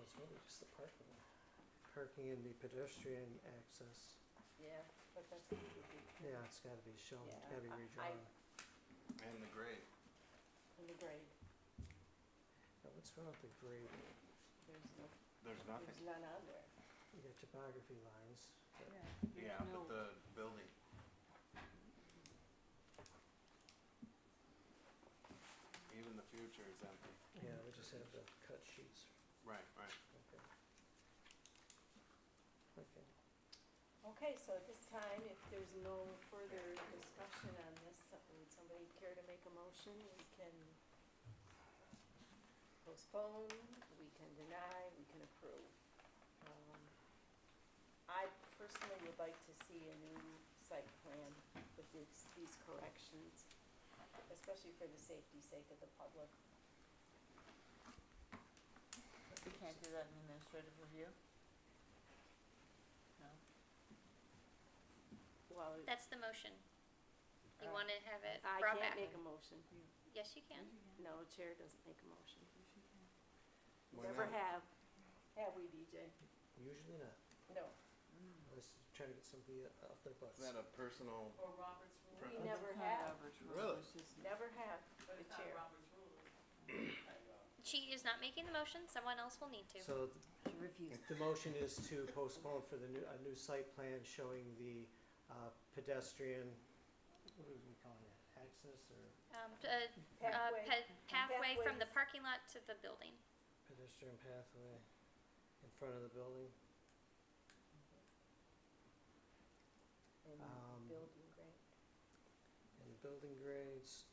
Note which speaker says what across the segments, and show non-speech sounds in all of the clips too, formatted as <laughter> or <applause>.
Speaker 1: it's really just the parking. Parking and the pedestrian access,
Speaker 2: Yeah, but that's gonna be big
Speaker 1: yeah, it's gotta be shown, it's
Speaker 2: Yeah,
Speaker 1: gotta be
Speaker 2: I- I-
Speaker 1: redrawn.
Speaker 3: And the grade.
Speaker 2: in the grade.
Speaker 1: Now, what's wrong with the grade?
Speaker 2: There's no,
Speaker 3: There's nothing.
Speaker 2: there's none on there.
Speaker 1: You got topography lines, but
Speaker 2: There's
Speaker 3: Yeah,
Speaker 2: no-
Speaker 3: but the building. Even the future is empty.
Speaker 1: Yeah, we just have the cut sheets,
Speaker 3: Right, right.
Speaker 1: okay. Okay,
Speaker 2: Okay, so at this time, if there's no further discussion on this, uh, would somebody care to make a motion? We can postpone, we can deny, we can approve. Um, I personally would like to see a new site plan with these, these corrections, especially for the safety sake of the public.
Speaker 4: We can't do that in administrative review? No?
Speaker 2: Well,
Speaker 5: That's the motion. You
Speaker 2: Uh,
Speaker 5: wanna have it
Speaker 2: I
Speaker 5: brought
Speaker 2: can't
Speaker 5: back?
Speaker 2: make a motion.
Speaker 5: Yes, you can.
Speaker 2: No, chair doesn't make a motion.
Speaker 3: Why
Speaker 2: Never
Speaker 3: not?
Speaker 2: have, have we, DJ?
Speaker 1: usually not,
Speaker 2: No.
Speaker 1: unless you're trying to get somebody off their butts.
Speaker 3: Is that a personal?
Speaker 6: Or Robert's rule.
Speaker 3: Right.
Speaker 2: We never have,
Speaker 3: Really?
Speaker 2: never have
Speaker 6: But
Speaker 2: the
Speaker 6: it's not
Speaker 2: chair.
Speaker 6: Robert's rule.
Speaker 2: Mm-hmm.
Speaker 5: She is not making the motion, someone else will need to.
Speaker 1: So th- the motion is to postpone for the new, a new site plan showing the uh, pedestrian, what are we calling it, access or
Speaker 5: Um, t- uh, uh,
Speaker 2: Pathway, Mm-hmm.
Speaker 5: pa- pathway from the
Speaker 2: Pathways.
Speaker 5: parking lot to the building.
Speaker 1: pedestrian pathway in front of the building? Um,
Speaker 2: building, right?
Speaker 1: and the building grades.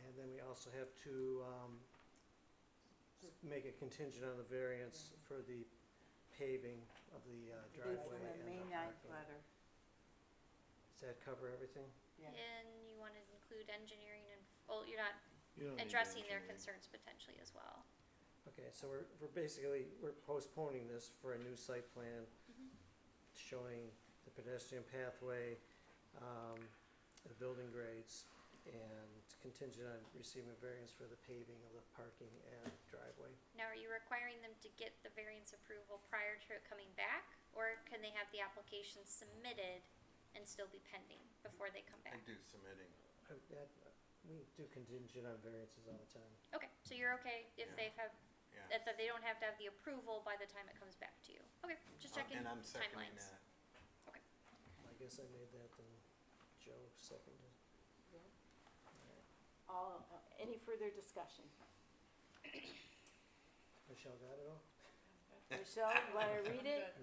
Speaker 1: And then we also have to, um, s- make it contingent on the variance for the paving of the uh, driveway and the parking. Does that cover everything?
Speaker 4: Yeah.
Speaker 5: And you wanna include engineering and, well, you're not addressing their concerns potentially as well.
Speaker 1: Okay, so we're, we're basically, we're postponing this for a new site plan
Speaker 5: Mhm.
Speaker 1: showing the pedestrian pathway, um, the building grades, and contingent on receiving a variance for the paving of the parking and driveway.
Speaker 5: Now, are you requiring them to get the variance approval prior to it coming back? Or can they have the application submitted and still be pending before they come
Speaker 3: I
Speaker 5: back?
Speaker 3: do submitting.
Speaker 1: Uh, That, we do contingent on variances all the time.
Speaker 5: Okay, so you're okay if
Speaker 3: Yeah.
Speaker 5: they have,
Speaker 3: Yeah.
Speaker 5: that, that they don't have to have the approval by the time it comes back to you? Okay, just
Speaker 3: Uh,
Speaker 5: checking
Speaker 3: And I'm seconding
Speaker 5: timelines.
Speaker 3: that.
Speaker 1: I guess I made that, then Joe seconded.
Speaker 2: Yeah. All, uh, any further
Speaker 3: <laughs>
Speaker 2: discussion?
Speaker 1: Michelle got it all?
Speaker 2: Michelle, you wanna read it?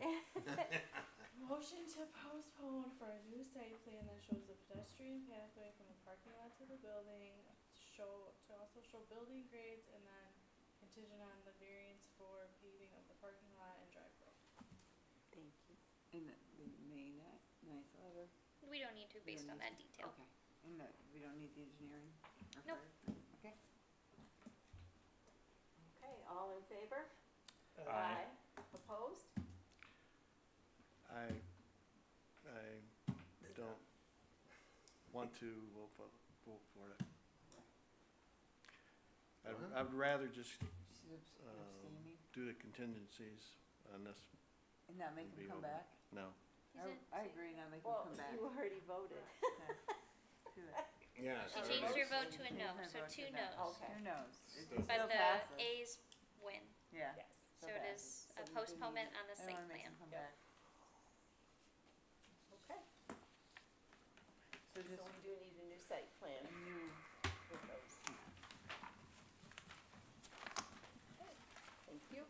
Speaker 3: <laughs>
Speaker 2: <laughs>
Speaker 6: Motion to postpone for a new site plan that shows the pedestrian pathway from the parking lot to the building, show, to also show building grades, and then contingent on the variance for paving of the parking lot and driveway.
Speaker 2: Thank you.
Speaker 7: In the, the May ni- ninth letter?
Speaker 5: We don't need to based on that detail.
Speaker 7: Okay, and the, we don't need the engineering? or
Speaker 5: Nope.
Speaker 7: fire? Okay.
Speaker 2: Okay, all in favor?
Speaker 3: Aye.
Speaker 2: Opposed?
Speaker 8: I, I don't want to vote for, vote for it.
Speaker 3: What?
Speaker 8: I'd, I'd rather just
Speaker 7: She's abs-
Speaker 8: Um,
Speaker 7: abstaining
Speaker 8: do the contingencies on this,
Speaker 7: and not make him
Speaker 8: be
Speaker 7: come
Speaker 8: over.
Speaker 7: back?
Speaker 8: no.
Speaker 5: He's
Speaker 7: I,
Speaker 5: in-
Speaker 7: I agree, not make him
Speaker 2: Well,
Speaker 7: come back.
Speaker 2: you already voted.
Speaker 7: Do
Speaker 5: <laughs>
Speaker 7: that.
Speaker 3: Yeah.
Speaker 5: You
Speaker 7: Or
Speaker 3: sorry.
Speaker 5: changed your
Speaker 7: vote.
Speaker 5: vote to a
Speaker 7: You
Speaker 5: no,
Speaker 7: can
Speaker 5: so
Speaker 7: vote to
Speaker 5: two
Speaker 7: no.
Speaker 5: no's.
Speaker 2: Okay.
Speaker 7: Who knows? It
Speaker 3: Still-
Speaker 7: still
Speaker 5: But the
Speaker 7: passes.
Speaker 5: A's win,
Speaker 7: Yeah.
Speaker 2: Yes.
Speaker 5: so
Speaker 7: Still
Speaker 5: it
Speaker 7: passes.
Speaker 5: is
Speaker 2: So we
Speaker 5: a
Speaker 2: do
Speaker 5: postponement on the
Speaker 7: I
Speaker 5: site
Speaker 7: don't wanna make
Speaker 5: plan.
Speaker 7: him come
Speaker 2: Yep.
Speaker 7: back.
Speaker 2: Okay,
Speaker 7: So
Speaker 2: so
Speaker 7: just
Speaker 2: we do need a new site plan
Speaker 7: a new,
Speaker 2: with those. Okay, Thank you.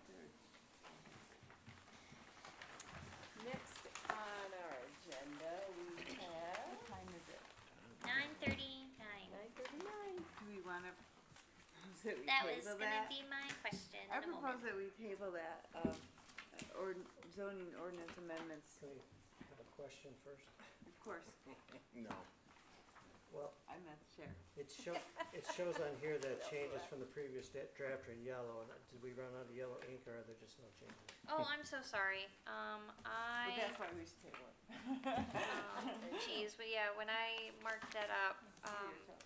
Speaker 2: Next on our agenda, we have
Speaker 7: what time is it?
Speaker 5: Nine thirty-nine.
Speaker 2: nine thirty-nine.
Speaker 7: Do we wanna, propose that we
Speaker 5: That was
Speaker 7: table
Speaker 5: gonna
Speaker 7: that?
Speaker 5: be my question
Speaker 7: I
Speaker 5: in a moment.
Speaker 7: propose that we table that, um, uh, or zoning ordinance amendments,
Speaker 1: Can we have a question first?
Speaker 7: of <laughs> course,
Speaker 3: No.
Speaker 1: Well,
Speaker 7: I'm not the chair.
Speaker 1: it show, it shows on here that changes from the previous da- draft are in yellow, and uh, did we run out of yellow ink, or are there just no changes?
Speaker 5: Oh, I'm so sorry. Um,
Speaker 7: But
Speaker 5: I,
Speaker 7: that's why
Speaker 5: <laughs>
Speaker 7: we should table it.
Speaker 5: um, geez, but yeah, when I marked that up, um,